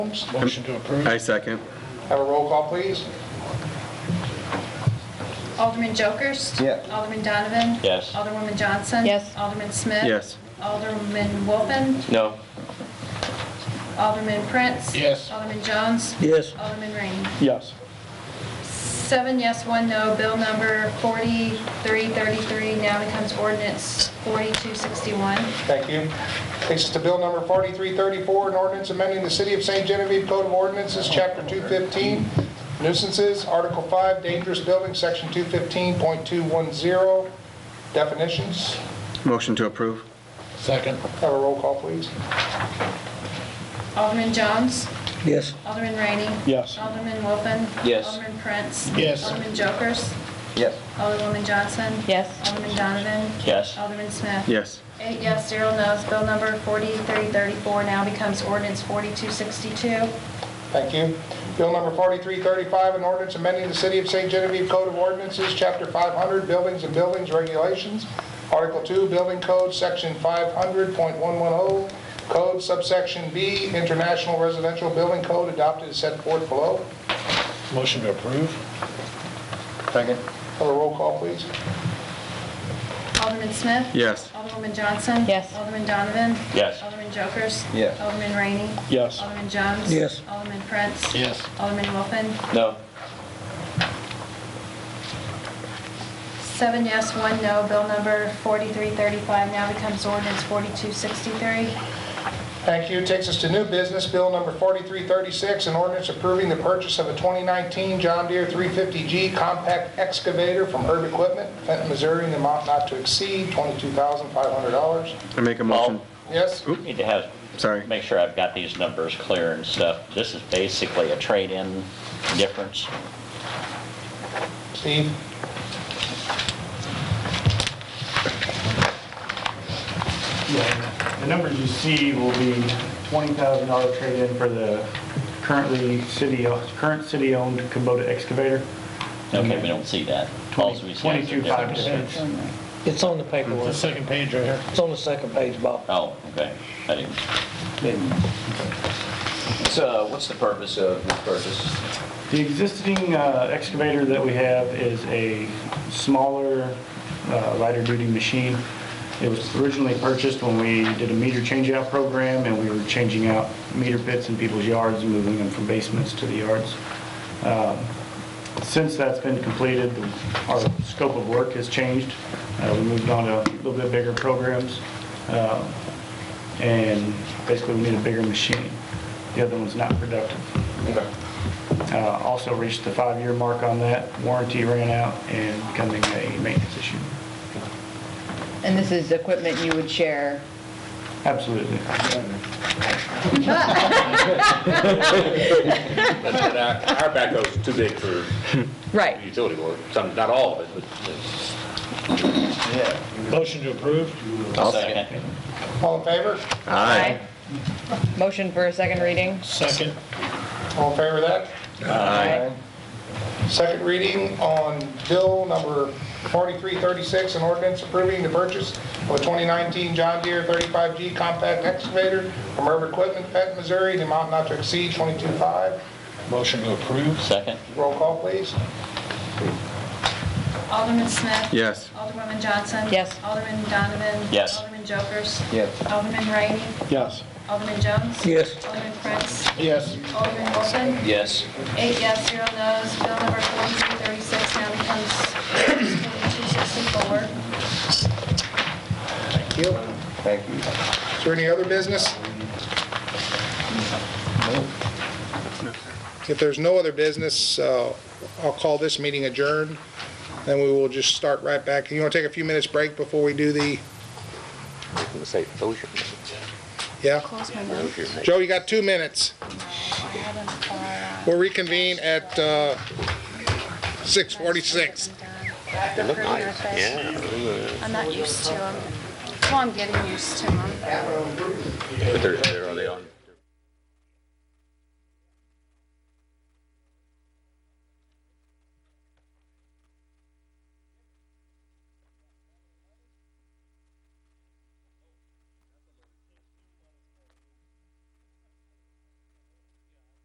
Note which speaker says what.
Speaker 1: Motion to approve.
Speaker 2: I second.
Speaker 1: Have a roll call, please.
Speaker 3: Alderman Jokers?
Speaker 4: Yeah.
Speaker 3: Alderman Donovan?
Speaker 5: Yes.
Speaker 3: Alderwoman Johnson?
Speaker 6: Yes.
Speaker 3: Alderman Smith?
Speaker 2: Yes.
Speaker 3: Alderman Wolfen?
Speaker 5: No.
Speaker 3: Alderman Prince?
Speaker 1: Yes.
Speaker 3: Alderman Jones?
Speaker 5: Yes.
Speaker 3: Alderman Rainey?
Speaker 5: Yes.
Speaker 3: Seven yes, one no. Bill number 4333 now becomes ordinance 4261.
Speaker 1: Thank you. Takes us to bill number 4334, an ordinance amending the City of St. Genevieve Code of Ordinances, Chapter 215, nuisances, Article 5, dangerous buildings, Section 215.210, definitions.
Speaker 2: Motion to approve.
Speaker 7: Second.
Speaker 1: Have a roll call, please.
Speaker 3: Alderman Jones?
Speaker 7: Yes.
Speaker 3: Alderman Rainey?
Speaker 7: Yes.
Speaker 3: Alderman Wolfen?
Speaker 5: Yes.
Speaker 3: Alderman Prince?
Speaker 1: Yes.
Speaker 3: Alderman Jokers?
Speaker 4: Yes.
Speaker 3: Alderwoman Johnson?
Speaker 6: Yes.
Speaker 3: Alderman Donovan?
Speaker 5: Yes.
Speaker 3: Alderman Smith?
Speaker 2: Yes.
Speaker 3: Eight yes, zero no's. Bill number 4334 now becomes ordinance 4262.
Speaker 1: Thank you. Bill number 4335, an ordinance amending the City of St. Genevieve Code of Ordinances, Chapter 500, Buildings and Buildings Regulations, Article 2, Building Code, Section 500.110, oh, Code subsection B, International Residential Building Code adopted as set forth below.
Speaker 7: Motion to approve?
Speaker 4: Second.
Speaker 1: Have a roll call, please.
Speaker 3: Alderman Smith?
Speaker 2: Yes.
Speaker 3: Alderwoman Johnson?
Speaker 6: Yes.
Speaker 3: Alderman Donovan?
Speaker 5: Yes.
Speaker 3: Alderman Jokers?
Speaker 4: Yes.
Speaker 3: Alderman Rainey?
Speaker 7: Yes.
Speaker 3: Alderman Jones?
Speaker 7: Yes.
Speaker 3: Alderman Prince?
Speaker 7: Yes.
Speaker 3: Alderman Wolfen?
Speaker 5: No.
Speaker 3: Seven yes, one no. Bill number 4335 now becomes ordinance 4263.
Speaker 1: Thank you. Takes us to new business, Bill number 4336, an ordinance approving the purchase of a 2019 John Deere 350G compact excavator from Herb Equipment, Fenton, Missouri, in the amount not to exceed $22,500.
Speaker 2: I make a motion.
Speaker 1: Yes?
Speaker 5: Need to have,
Speaker 2: Sorry.
Speaker 5: make sure I've got these numbers clear and stuff. This is basically a trade-in difference.
Speaker 1: Steve?
Speaker 8: Yeah, The numbers you see will be $20,000 trade-in for the currently city, current city-owned Kubota excavator.
Speaker 5: Okay, we don't see that. Alls we see is the difference.
Speaker 8: 22,500.
Speaker 9: It's on the paperwork.
Speaker 7: second page right here.
Speaker 9: It's on the second page, Bob.
Speaker 5: Oh, okay. I didn't,
Speaker 4: So what's the purpose of this purchase?
Speaker 8: The existing uh, excavator that we have is a smaller uh, lighter duty machine. It was originally purchased when we did a meter changeout program and we were changing out meter pits in people's yards and moving them from basements to the yards. Um, Since that's been completed, our scope of work has changed. Uh, We moved on to a little bit bigger programs. um, And basically, we need a bigger machine. The other one's not productive. Uh, Also reached the five-year mark on that. Warranty ran out and becoming a maintenance issue.
Speaker 6: And this is equipment you would share?
Speaker 8: Absolutely.
Speaker 10: And Our our backhoe's too big for
Speaker 6: Right.
Speaker 10: utility work, some, not all of it, but it's-
Speaker 7: Motion to approve?
Speaker 5: I'll second.
Speaker 1: All in favor?
Speaker 2: Aye.
Speaker 6: Motion for a second reading?
Speaker 7: Second.
Speaker 1: All in favor of that?
Speaker 6: Aye.
Speaker 1: Second reading on bill number 4336, an ordinance approving the purchase of a 2019 John Deere 35G compact excavator from Herb Equipment, Fenton, Missouri, in the amount not to exceed 22.5.
Speaker 7: Motion to approve?
Speaker 5: Second?
Speaker 1: Roll call, please.
Speaker 3: Alderman Smith?
Speaker 2: Yes.
Speaker 3: Alderwoman Johnson?
Speaker 6: Yes.
Speaker 3: Alderman Donovan?
Speaker 5: Yes.
Speaker 3: Alderman Jokers?
Speaker 4: Yes.
Speaker 3: Alderman Rainey?
Speaker 7: Yes.
Speaker 3: Alderman Jones?
Speaker 9: Yes.
Speaker 3: Alderman Prince?
Speaker 7: Yes.
Speaker 3: Alderman Wolfen?
Speaker 5: Yes.
Speaker 3: Eight yes, zero no's. Bill number 4336 now becomes ordinance 4264.
Speaker 1: Thank you.
Speaker 4: Thank you.
Speaker 1: Is there any other business? If there's no other business, uh, I'll call this meeting adjourned, and we will just start right back. You want to take a few minutes break before we do the,
Speaker 10: it's safe. Those are-
Speaker 1: yeah?
Speaker 3: Close my mouth.
Speaker 10: those are-
Speaker 1: Joe, you got two minutes.
Speaker 3: I uh, had them far out.
Speaker 1: We'll reconvene at uh, 6:46.
Speaker 3: They look nice, I'm not used to them. Well, I'm getting used to them.
Speaker 10: But they're, they're, are they